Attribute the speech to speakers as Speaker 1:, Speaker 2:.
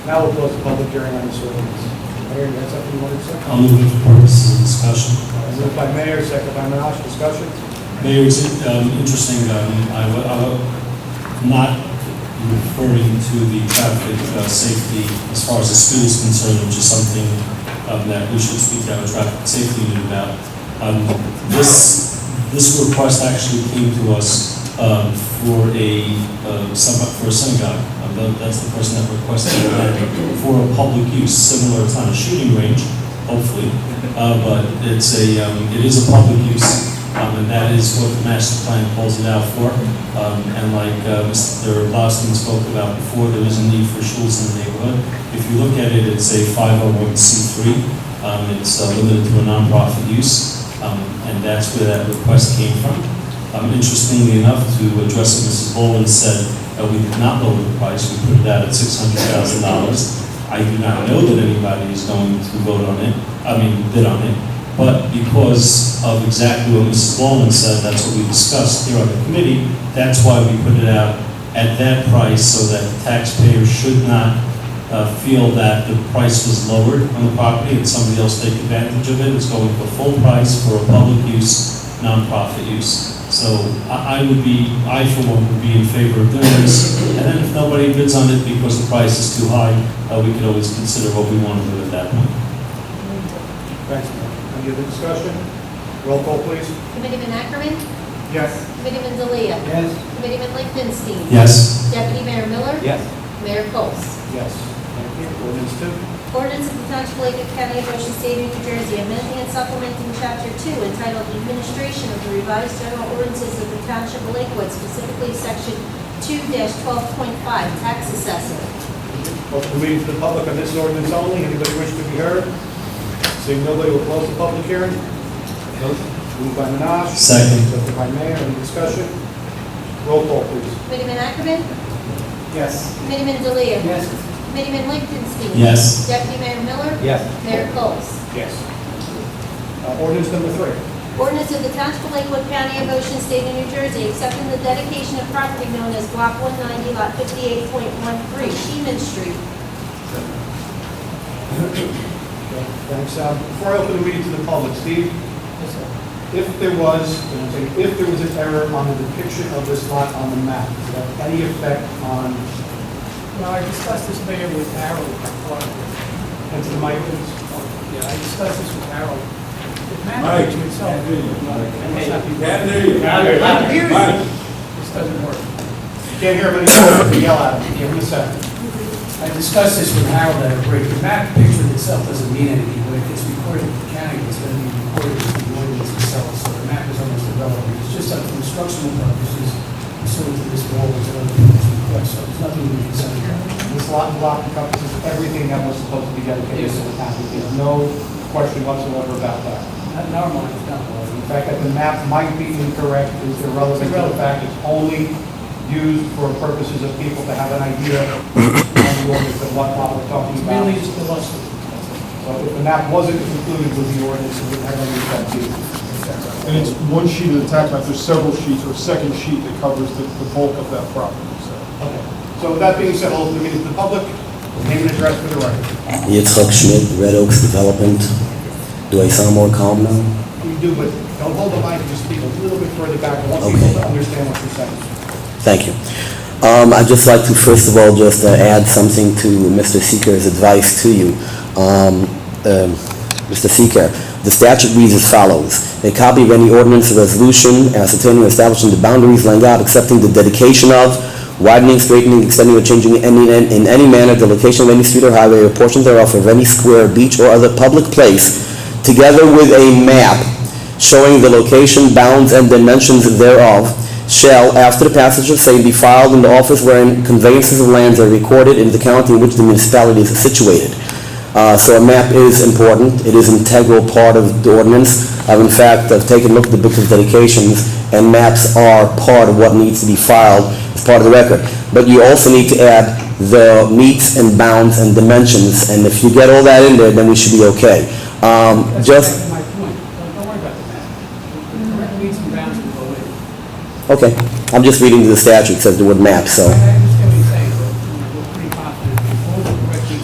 Speaker 1: Now we'll close the public hearing on this ordinance. Mayor, you got something you wanted to say?
Speaker 2: I'll move it for purposes of discussion.
Speaker 1: Uh, Moved by Mayor, second by Minaj, discussion?
Speaker 2: Mayor, it's um, interesting, um, I wa- I wa- not referring to the traffic uh, safety as far as the school is concerned, which is something um, that we should speak to our traffic safety unit about. Um, This, this request actually came to us um, for a, uh, some- for a synagogue. Um, tha- That's the person that requested that for a public use, similar, it's not a shooting range, hopefully, uh, but it's a, um, it is a public use. Um, and that is what the master plan calls it out for. Um, and like, uh, Mr. Boston spoke about before, there is a need for schools in the neighborhood. If you look at it, it's a five oh one C three. Um, it's uh, limited to a nonprofit use. Um, and that's where that request came from. Um, interestingly enough, to address what Mrs. Boland said, uh, we did not lower the price. We put it out at six hundred thousand dollars. I do not know that anybody is going to vote on it, I mean, bid on it. But because of exactly what Mrs. Ballman said, that's what we discussed here on the committee, that's why we put it out at that price, so that the taxpayer should not uh, feel that the price was lowered on the property and somebody else take advantage of it. It's going for full price for a public use, nonprofit use. So I I would be, I for one would be in favor of doing this. And then if nobody bids on it because the price is too high, uh, we could always consider what we want to do at that point.
Speaker 1: Thanks, Mayor. Any other discussion? Roll call, please.
Speaker 3: Committeeman Ackerman,
Speaker 1: Yes.
Speaker 3: Committeeman Delia,
Speaker 1: Yes.
Speaker 3: Committeeman Lichtenstein.
Speaker 2: Yes?
Speaker 3: Deputy Mayor Miller.
Speaker 1: Yes.
Speaker 3: Mayor Coles.
Speaker 1: Yes. Thank you. Ordinance two.
Speaker 3: Ordinance of the Township of Lacey County, Ocean State, New Jersey, amending and supplementing Chapter 2 entitled Administration of the Revised General Ordinances of the Township of Lakewood, specifically Section 2-12.5, Tax Assessor.
Speaker 1: Open the meeting to the public on this ordinance only. Anybody wish to be heard? Seeing nobody, we'll close the public hearing. Moved by Minaj.
Speaker 2: Second.
Speaker 1: Second by Mayor. Any discussion? Roll call, please.
Speaker 3: Committeeman Ackerman,
Speaker 1: Yes.
Speaker 3: Committeeman Delia.
Speaker 1: Yes.
Speaker 3: Committeeman Lichtenstein.
Speaker 2: Yes.
Speaker 3: Deputy Mayor Miller.
Speaker 1: Yes.
Speaker 3: Mayor Coles.
Speaker 1: Yes. Uh, Ordinance number three.
Speaker 3: Ordinance of the Township of Lakewood County of Ocean State of New Jersey accepting the dedication of property known as Block 190, Lot 58.13, Sheeman Street.
Speaker 1: Okay, Thanks. Uh, Before I open the meeting to the public, Steve? If there was, if there was an error on the depiction of this lot on the map, does that have any effect on,
Speaker 4: Well, I discussed this, Mayor, with Harold. uh,
Speaker 1: and to the mic, please?
Speaker 4: Yeah, I discussed this with Harold. It matters to itself.
Speaker 5: Can't hear you. Can't hear you.
Speaker 4: This doesn't work.
Speaker 1: You can't hear him anymore, if you yell at him, give him a second.
Speaker 4: I discussed this with Harold at a break. The map picture itself doesn't mean anything, but if it's recorded in the county, it's going to be recorded as the ordinance itself, so the map is almost irrelevant. It's just up to instructional purposes, pursuant to this law, which other people's request, so there's nothing we can say about.
Speaker 1: This lot block encompasses everything that was supposed to be dedicated to the town. There's no question whatsoever about that.
Speaker 4: Not in our mind, it's not law.
Speaker 1: The fact that the map might be incorrect is irrelevant to the fact it's only used for purposes of people to have an idea on the ordinance of what lot we're talking
Speaker 4: It's
Speaker 1: about.
Speaker 4: merely just illustrative. that's all.
Speaker 1: So if the map wasn't included with the ordinance, it would have any effect either.
Speaker 6: And it's one sheet of the tax map, there's several sheets, or a second sheet that covers the the bulk of that property, so.
Speaker 1: Okay. So with that being said, I'll open the meeting to the public. Name and address for the record.
Speaker 7: Yitzhak Schmidt, Red Oaks Development. Do I sound more calm now?
Speaker 1: You do, but don't hold the mic, just speak a little bit further back. I want
Speaker 7: Okay.
Speaker 1: people to understand what you're saying.
Speaker 7: Thank you. Um, I'd just like to, first of all, just uh, add something to Mr. Seeker's advice to you. Um, um, Mr. Seeker, the statute reads as follows. A copy of any ordinance or resolution ascertaining or establishing the boundaries, laying out, accepting the dedication of, widening, straightening, extending, or changing in any, in any manner the location of any street or highway or portion thereof of any square, beach, or other public place, together with a map showing the location, bounds, and dimensions thereof, shall, after the passage of same, be filed in the office wherein conveyances of lands are recorded in the county in which the municipality is situated. Uh, So a map is important, it is integral part of the ordinance. I've in fact, I've taken a look at the book of dedications, and maps are part of what needs to be filed as part of the record. But you also need to add the meets and bounds and dimensions, and if you get all that in there, then we should be okay. Um,
Speaker 4: That's
Speaker 7: Just,
Speaker 4: exactly my point. Don't don't worry about the map. The correct needs and bounds will go in.
Speaker 7: Okay, I'm just reading the statute, it says the word map,
Speaker 4: I
Speaker 7: so,
Speaker 4: I